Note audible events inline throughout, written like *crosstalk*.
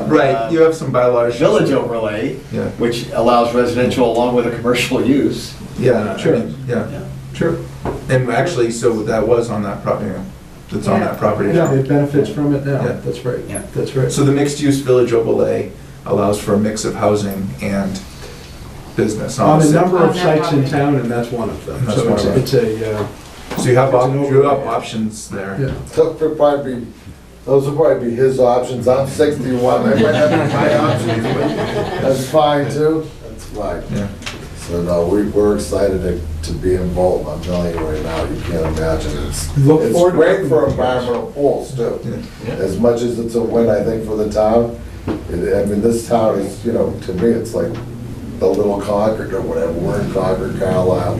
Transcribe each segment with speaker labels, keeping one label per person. Speaker 1: Right, you have some bylaws.
Speaker 2: Uh, village overlay,
Speaker 1: Yeah.
Speaker 2: which allows residential along with a commercial use.
Speaker 1: Yeah,
Speaker 3: Sure.
Speaker 1: sure, yeah, sure. And actually, so that was on that property, that's on that property
Speaker 3: Yeah,
Speaker 1: now.
Speaker 3: it benefits from it now,
Speaker 1: Yeah.
Speaker 3: that's right,
Speaker 2: Yeah.
Speaker 3: that's right.
Speaker 1: So the mixed-use village overlay allows for a mix of housing and business on
Speaker 3: On
Speaker 1: the
Speaker 3: a
Speaker 1: same.
Speaker 3: number
Speaker 4: On
Speaker 3: of
Speaker 4: that
Speaker 3: sites in
Speaker 4: property.
Speaker 3: town, and that's one of them,
Speaker 1: That's
Speaker 3: so
Speaker 1: one
Speaker 3: it's,
Speaker 1: of them.
Speaker 3: it's a, uh,
Speaker 1: So you have, op-
Speaker 3: It's an
Speaker 1: you have
Speaker 3: overlay.
Speaker 1: options there.
Speaker 3: yeah.
Speaker 5: Those would probably be, those would probably be his options, I'm sixty-one, they might have been my options, but that's fine too, that's fine.
Speaker 1: Yeah.
Speaker 5: So no, we, we're excited to, to be involved, I'm telling you right now, you can't imagine, it's,
Speaker 3: Look
Speaker 5: it's
Speaker 3: forward to
Speaker 5: great
Speaker 3: working
Speaker 5: for
Speaker 3: with you guys.
Speaker 5: environmental goals
Speaker 1: Yeah.
Speaker 5: too. As much as it's a win, I think, for the town, it- I mean, this town is, you know, to me, it's like the little Concord or whatever, we're in Concord, Carlisle,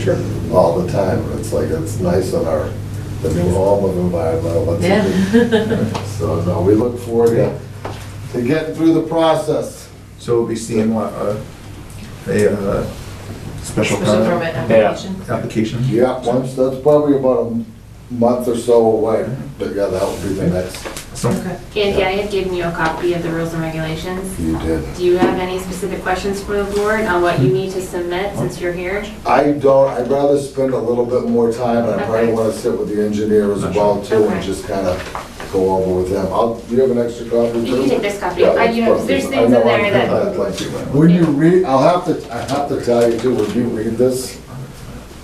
Speaker 5: all the time, and it's like, it's nice on our, the new home of environmental, that's a big
Speaker 3: *laughs*
Speaker 5: so, no, we look forward to, to getting through the process.
Speaker 1: So we'll be seeing what, uh, a, uh, special
Speaker 4: Special
Speaker 1: permit
Speaker 4: permit application.
Speaker 1: application?
Speaker 5: Yeah, once, that's probably about a month or so away, but yeah, that would be the next,
Speaker 1: So,
Speaker 4: Okay.
Speaker 6: Andy, I had given you a copy of the rules and regulations.
Speaker 5: you did.
Speaker 6: Do you have any specific questions for the board on what you need to submit since you're here?
Speaker 5: I don't, I'd rather spend a little bit more time, and I probably wanna sit with the engineer as well too, and just kinda go over with him. I'll, do you have an extra copy?
Speaker 6: You can
Speaker 5: too?
Speaker 6: take this copy.
Speaker 5: Yeah,
Speaker 6: I- you know,
Speaker 5: that's
Speaker 6: there's
Speaker 5: perfect.
Speaker 6: things in
Speaker 5: I know
Speaker 6: there
Speaker 5: I'm-
Speaker 6: that-
Speaker 5: I'd like to- When you read, I'll have to, I have to tell you too, when you read this,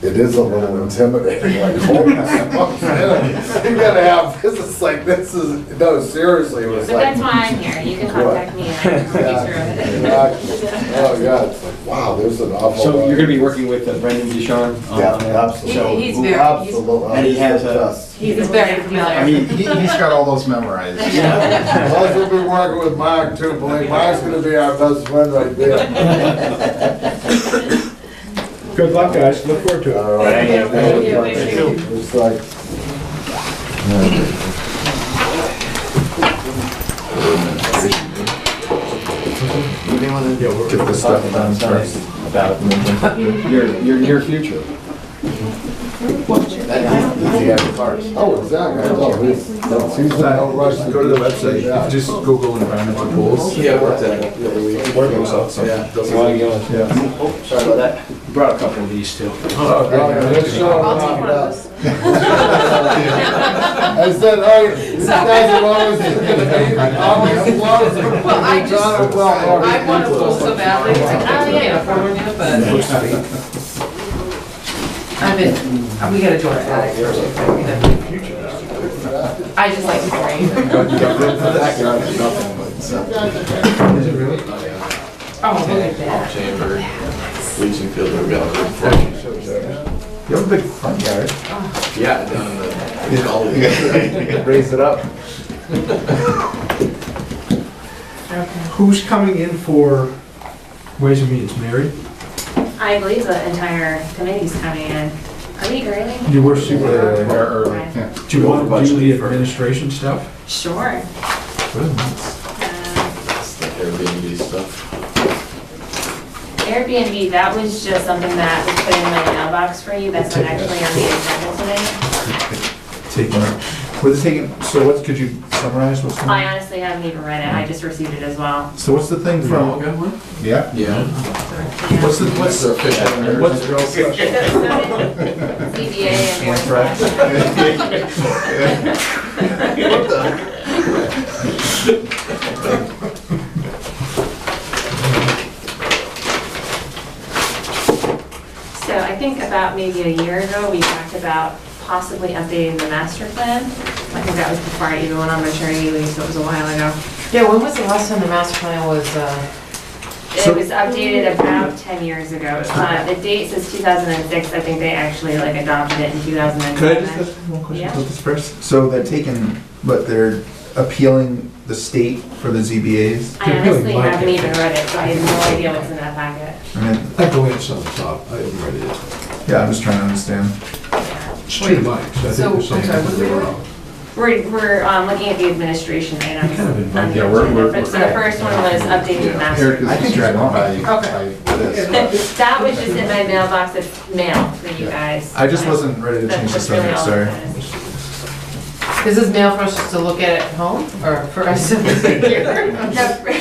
Speaker 5: it is a little intimidating, like, *laughs* holy smokes, you gotta have, this is like, this is, no, seriously, it
Speaker 6: But
Speaker 5: was like.
Speaker 6: that's why I'm here. You can contact me and I can
Speaker 5: Yeah,
Speaker 6: walk you through
Speaker 5: exactly.
Speaker 6: it.
Speaker 5: Oh, yeah, it's like, wow, there's an awful.
Speaker 2: So
Speaker 5: lot.
Speaker 2: you're gonna be working with uh, Brendan Ducharme? on
Speaker 5: Yeah,
Speaker 2: that?
Speaker 5: absolutely.
Speaker 2: So-
Speaker 4: He- He's very, he's-
Speaker 5: Absolutely.
Speaker 2: And he has a-
Speaker 4: *laughs* he's very
Speaker 2: I
Speaker 4: familiar.
Speaker 2: mean, he- he's
Speaker 7: got all those memorized.
Speaker 2: Uh,
Speaker 5: Plus, we'll be working with Mark too, believe, Mark's gonna be our best friend right there.
Speaker 3: Good luck, guys, look forward to it.
Speaker 5: *laughs* All right.
Speaker 2: Thank you.
Speaker 4: Thank you. Thank you.
Speaker 5: It's like.
Speaker 1: yeah, we'll get this stuff done first.
Speaker 2: uh, about your, your near future.
Speaker 5: Oh, exactly, I know, he's, he's in no rush to
Speaker 1: Go to the website, You
Speaker 5: *laughs*
Speaker 1: can just Google environmental goals. Yeah, work that. Work those out, so. Yeah.
Speaker 2: Sorry about that. Brought a couple of these too.
Speaker 1: Oh, great.
Speaker 5: Yeah, let's show him
Speaker 4: I'll take one
Speaker 5: how
Speaker 4: of
Speaker 5: it's
Speaker 4: those.
Speaker 5: done. I said, oh,
Speaker 4: *laughs*
Speaker 5: these guys are always gonna be, always close.
Speaker 4: Well, I just-
Speaker 5: Well,
Speaker 4: I want to pull so badly, it's like, oh, yeah, you're from New, but I'm in, we got a George addict. or something, we gotta- I just like to drink.
Speaker 5: That guy is nothing but.
Speaker 1: Is it really?
Speaker 4: Oh, look at that.
Speaker 7: Chamber, leaching field, we've got a
Speaker 1: You have a big front yard.
Speaker 7: Yeah, down in the.
Speaker 1: Raise it up.
Speaker 4: Okay.
Speaker 3: Who's coming in for Ways and Means, Mary?
Speaker 6: I believe the entire committee's coming in. Are we early?
Speaker 3: You were super, uh,
Speaker 1: Yeah.
Speaker 7: We're early.
Speaker 3: do you want to do the administration stuff?
Speaker 6: Sure. Uh,
Speaker 7: It's like Airbnb stuff.
Speaker 6: Airbnb, that was just something that was put in my mailbox for you. That's not actually on the agenda today.
Speaker 1: Taking, what's taking, so what, could you summarize what's going
Speaker 6: I
Speaker 1: on?
Speaker 6: honestly haven't even read it. I just received it as well.
Speaker 1: So what's the thing from,
Speaker 7: Yeah.
Speaker 6: Yeah.
Speaker 7: Yeah.
Speaker 1: what's the, what's, what's real special?
Speaker 6: CBA and board.
Speaker 1: Right.
Speaker 6: So I think about maybe a year ago, we talked about possibly updating the master plan. I think that was before I even went on maternity leave, so it was a while ago.
Speaker 8: Yeah, when was the last time the master plan was, uh,
Speaker 1: So-
Speaker 6: It was updated about 10 years ago. Uh, The date says 2006, I think they actually like adopted it in 2007.
Speaker 1: Could I just ask one question
Speaker 6: Yeah.
Speaker 1: about this first? So they're taking, but they're appealing the state for the ZBAs?
Speaker 6: I honestly haven't even read it, so I have no idea what's in that packet.
Speaker 1: I mean,
Speaker 3: I go in some top, I haven't read it.
Speaker 1: yeah, I'm just trying to understand.
Speaker 3: It's two
Speaker 8: So,
Speaker 3: mics, I think the
Speaker 8: I'm sorry, what
Speaker 3: same.
Speaker 8: were we-
Speaker 6: We're, we're um, looking at the administration items.
Speaker 3: Kind of involved.
Speaker 6: on the
Speaker 7: Yeah, we're- we're-
Speaker 6: agenda, but- So the first one was updating the master.
Speaker 7: Eric is
Speaker 1: I think it's
Speaker 7: distracted
Speaker 1: wrong.
Speaker 7: by,
Speaker 6: Okay.
Speaker 7: by this.
Speaker 6: *laughs* That was just in my mailbox of mail for you guys.
Speaker 1: I just wasn't ready to
Speaker 6: That-
Speaker 1: change the
Speaker 6: that's really
Speaker 1: subject,
Speaker 6: all
Speaker 1: sorry.
Speaker 6: that is.
Speaker 4: Is this mail for us to *laughs* look at at home, or for us to look here?
Speaker 6: The-